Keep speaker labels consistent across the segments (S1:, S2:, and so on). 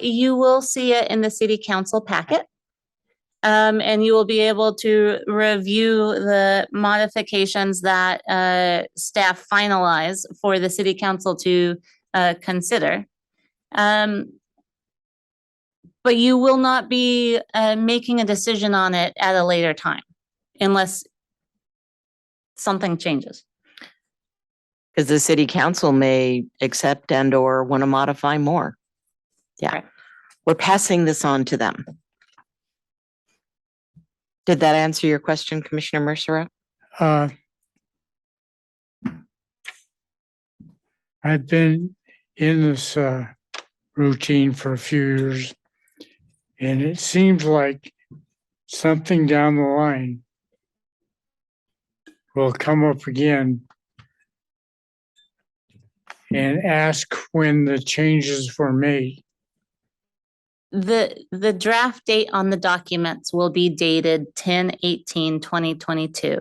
S1: You will see it in the city council packet. Um, and you will be able to review the modifications that, uh, staff finalize for the city council to, uh, consider. Um, but you will not be, uh, making a decision on it at a later time unless something changes.
S2: Because the city council may accept and or want to modify more. Yeah.
S1: Correct.
S2: We're passing this on to them. Did that answer your question, Commissioner Mercero?
S3: uh, I've been in this uh, routine for a few years, and it seems like something down the line will come up again and ask when the changes were made.
S1: The, the draft date on the documents will be dated 10 18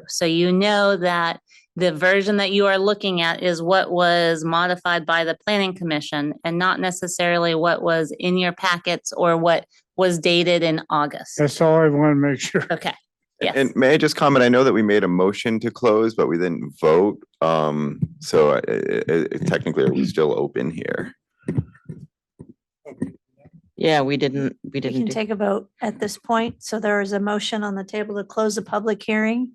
S1: So you know that the version that you are looking at is what was modified by the planning commission and not necessarily what was in your packets or what was dated in August.
S3: That's all I want to make sure.
S1: Okay, yes.
S4: And may I just comment? I know that we made a motion to close, but we didn't vote. Um, so I- I- I- uh, technically, are we still open here?
S2: Yeah, we didn't, we
S5: We can
S2: didn't. do-
S5: take a vote at this point. So there is a motion on the table to close the public hearing.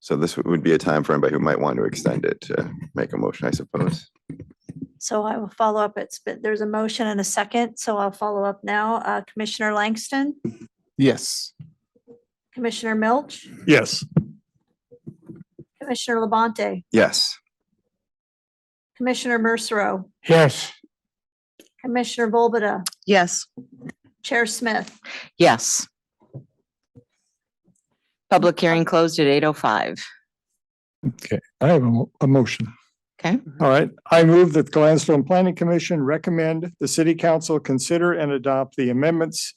S4: So this would be a time for anybody who might want to extend it to make a motion, I suppose.
S5: So I will follow up. It's, but there's a motion and a second, so I'll follow up now. Uh, Commissioner Langston,
S6: Yes.
S5: Commissioner Milch,
S6: Yes.
S5: Commissioner Labonte,
S4: Yes.
S5: Commissioner Mercero,
S3: Yes,
S5: Commissioner Volbada,
S2: Yes.
S5: Chair Smith.
S2: Yes. Public hearing closed at eight oh five.
S6: I have a, mo- a motion.
S2: Okay.
S6: All right. I move that the Gladstone Planning Commission recommend the city council consider and adopt the amendments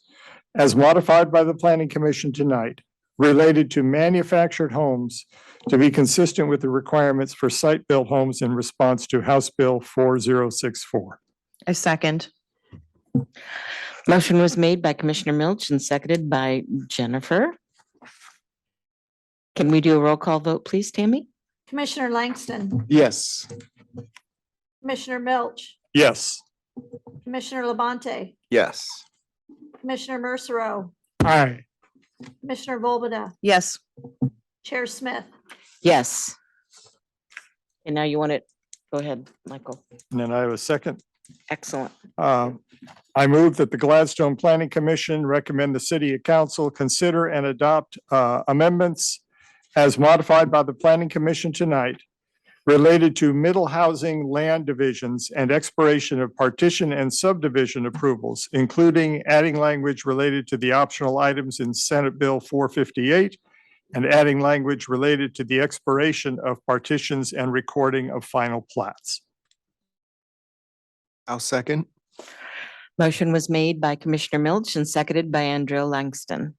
S6: as modified by the planning commission tonight related to manufactured homes to be consistent with the requirements for site-built homes in response to House Bill four zero six four.
S2: A second. Motion was made by Commissioner Milch and seconded by Jennifer. Can we do a roll call vote, please, Tammy?
S5: Commissioner Langston,
S6: Yes.
S5: Commissioner Milch,
S6: Yes.
S5: Commissioner Labonte,
S4: Yes.
S5: Commissioner Mercero,
S3: aye.
S5: Commissioner Volbada,
S2: Yes.
S5: Chair Smith.
S2: Yes. And now you want it, go ahead, Michael.
S6: And then I have a second.
S2: Excellent.
S6: Uh, I move that the Gladstone Planning Commission recommend the city council consider and adopt uh, amendments as modified by the planning commission tonight related to middle housing land divisions and expiration of partition and subdivision approvals, including adding language related to the optional items in Senate Bill four fifty-eight and adding language related to the expiration of partitions and recording of final plats.
S4: I'll second.
S2: Motion was made by Commissioner Milch and seconded by Andrew Langston.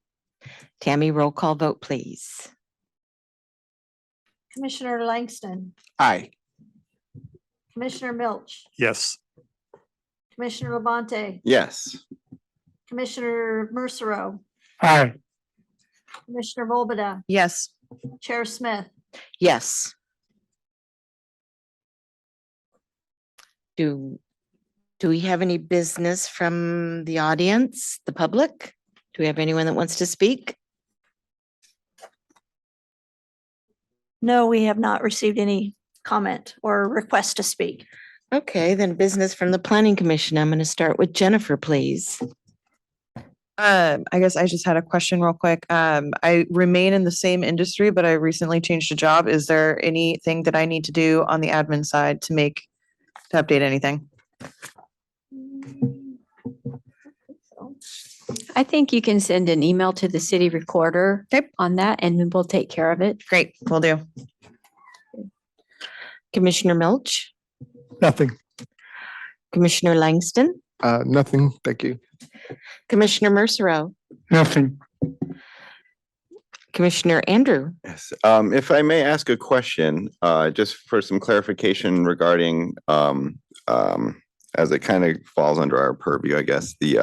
S2: Tammy, roll call vote, please.
S5: Commissioner Langston,
S4: Aye.
S5: Commissioner Milch,
S6: Yes.
S5: Commissioner Labonte,
S4: Yes.
S5: Commissioner Mercero,
S3: Aye,
S5: Commissioner Volbada,
S2: Yes.
S5: Chair Smith.
S2: Yes. Do, do we have any business from the audience, the public? Do we have anyone that wants to speak?
S5: No, we have not received any comment or request to speak.
S2: Okay, then business from the planning commission. I'm going to start with Jennifer, please.
S7: Um, I guess I just had a question real quick. Um, I remain in the same industry, but I recently changed a job. Is there anything that I need to do on the admin side to make, to update anything?
S8: I think you can send an email to the city recorder
S7: Okay.
S8: on that and we'll take care of it.
S7: Great, we will do.
S2: Commissioner Milch,
S6: Nothing.
S2: Commissioner Langston,
S6: Uh, nothing. Thank you.
S2: Commissioner Mercero,
S3: nothing.
S2: Commissioner Andrew.
S4: Yes, um, if I may ask a question, uh, just for some clarification regarding, um, um, as it kind of falls under our purview, I guess, the